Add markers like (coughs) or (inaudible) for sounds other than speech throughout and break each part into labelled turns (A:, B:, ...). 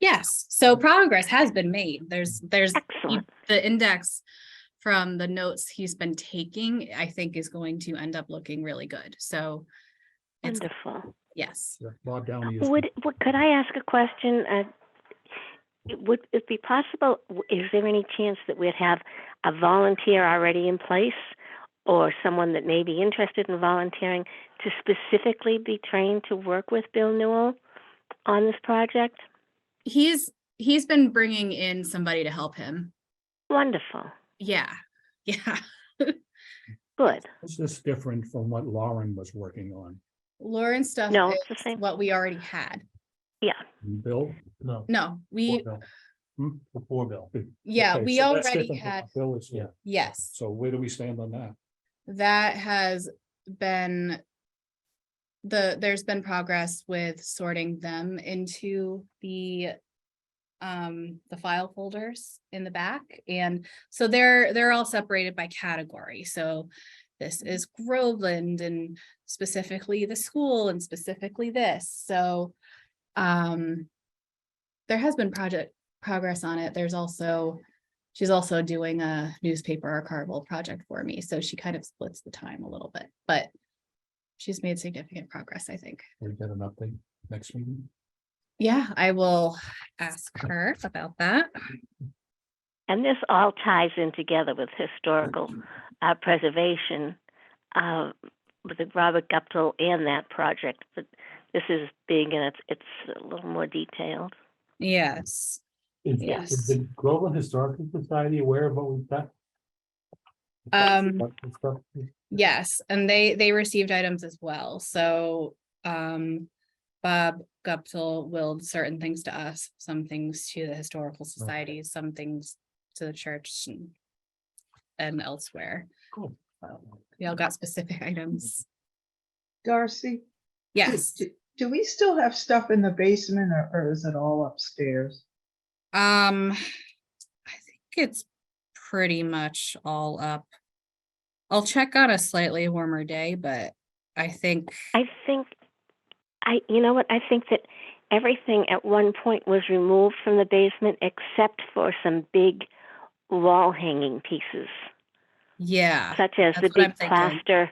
A: Yes, so progress has been made. There's, there's
B: Excellent.
A: the index from the notes he's been taking, I think is going to end up looking really good. So it's,
B: Wonderful.
A: yes,
C: Yeah, Bob Downey is. the-
B: Would, would, could I ask a question? Uh, it- Would it be possible, w- is there any chance that we'd have a volunteer already in place? Or someone that may be interested in volunteering to specifically be trained to work with Bill Newell on this project?
A: he's, he's been bringing in somebody to help him.
B: Wonderful,
A: Yeah, (laughs) yeah.
B: good.
C: This is different from what Lauren was working on.
A: Lauren stuff
B: No, it's the
A: is
B: same.
A: what we already had.
C: Bill? Hmm?
D: No,
A: No, we,
D: the poor bill.
A: yeah,
C: Okay,
A: we
C: so that's
A: already
C: different from
A: had,
C: what Bill is here.
A: yes.
C: So where do we stand on that?
A: That has been the, there's been progress with sorting them into the um, the file folders in the back. And so they're, they're all separated by category. So this is Groveland and specifically the school and specifically this. So um, there has been project progress on it. There's also she's also doing a newspaper archival project for me, so she kind of splits the time a little bit, but she's made significant progress, I think.
C: We get an update next meeting?
A: Yeah, I will ask her about that.
B: And this all ties in together with historical uh, preservation, uh, with the Robert Guptill and that project. But this is big and it's it's a little more detailed.
A: Yes,
D: Is,
A: Yes.
D: is the Groveland Historical Society aware of what we've got?
A: Um,
D: What the stuff is?
A: yes, and they, they received items as well, so, um, Bob Guptill willed certain things to us, some things to the historical society, some things to the church and and elsewhere.
D: Cool.
A: We all got specific (laughs) items.
E: Darcy? do-
A: Yes,
E: do- Do we still have stuff in the basement or, or is it all upstairs?
A: um, I think it's pretty much all up. I'll check on a slightly warmer day, but I think,
B: I think, I you know what? I think that everything at one point was removed from the basement except for some big wall hanging pieces,
A: yeah,
B: such as the
A: that's what I'm
B: big
A: thinking.
B: plaster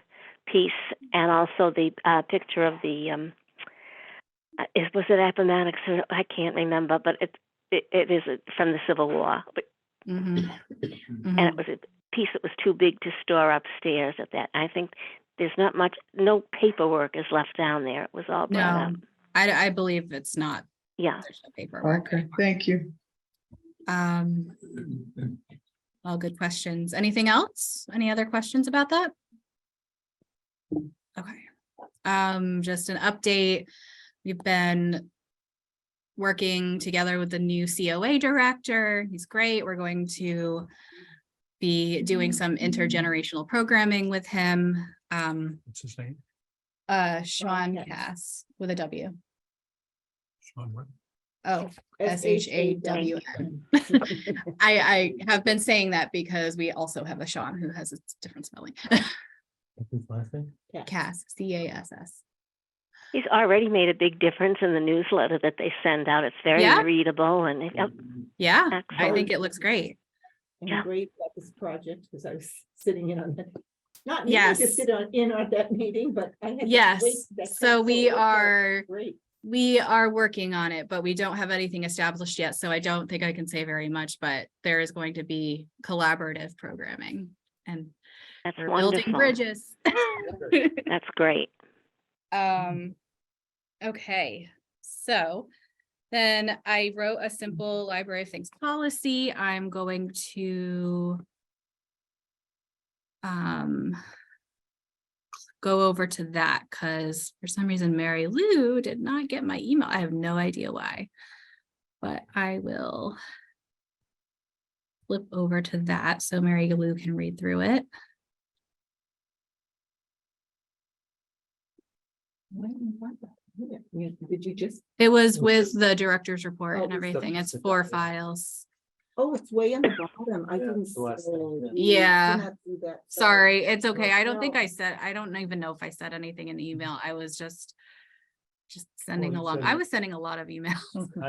B: piece and also the uh, picture of the. Um, uh, is was it Appomattox? Or, I can't remember, but it it, it is uh, from the Civil War, but,
A: mhm,
B: (coughs) and
A: mhm.
B: it was a piece that was too big to store upstairs. At that, I think there's not much. No paperwork is left down there. It was all brought
A: No.
B: up.
A: I, I believe it's not
B: Yeah.
A: there's no paperwork.
E: Okay, thank you.
A: Um, all good questions. Anything else? Any other questions about that? Okay, um, just an update. We've been working together with the new COA director. He's great. We're going to be doing some intergenerational programming with him. Um,
C: What's his name?
A: uh, Sean
B: yes.
A: Cass with a W.
C: Sean Webb?
A: Oh, S H A W N. I, I have been saying that because we also have a Sean who has a different spelling. (laughs)
D: What's his last name?
A: Cass, C A S S.
B: He's already made a big difference in the newsletter that they send out. It's very
A: Yeah.
B: readable and it- oh, yep,
A: Yeah, I
B: excellent.
A: think it looks great.
B: Yeah.
F: and great about this project, because I was sitting in on that. Not needing to
A: Yes.
F: sit on, in on that meeting, but I had. to
A: Yes,
F: wait that
A: so
F: time, it
A: we
F: worked out
A: are,
F: Great.
A: we are working on it, but we don't have anything established yet, so I don't think I can say very much, but there is going to be collaborative programming and
B: that's
A: we're building
B: wonderful.
A: bridges. (laughs)
B: That's great.
A: Um, okay, so then I wrote a simple library of things policy. I'm going to um go over to that because for some reason Mary Lou did not get my email. I have no idea why. But I will flip over to that so Mary Lou can read through it.
F: Did you just,
A: It was with the director's report
F: Oh,
A: and
F: with the-
A: everything. It's
D: with the-
A: four files.
F: oh, it's way on the bottom. I
D: Yeah,
F: didn't.
D: it's the last
F: see
D: thing, yeah.
F: it. We did
A: Yeah.
F: not do that,
A: Sorry, it's okay. I don't
F: no.
A: think I said, I don't even know if I said anything in the email. I was just just sending
D: you
A: along.
D: said
A: I
D: it.
A: was sending a lot of emails.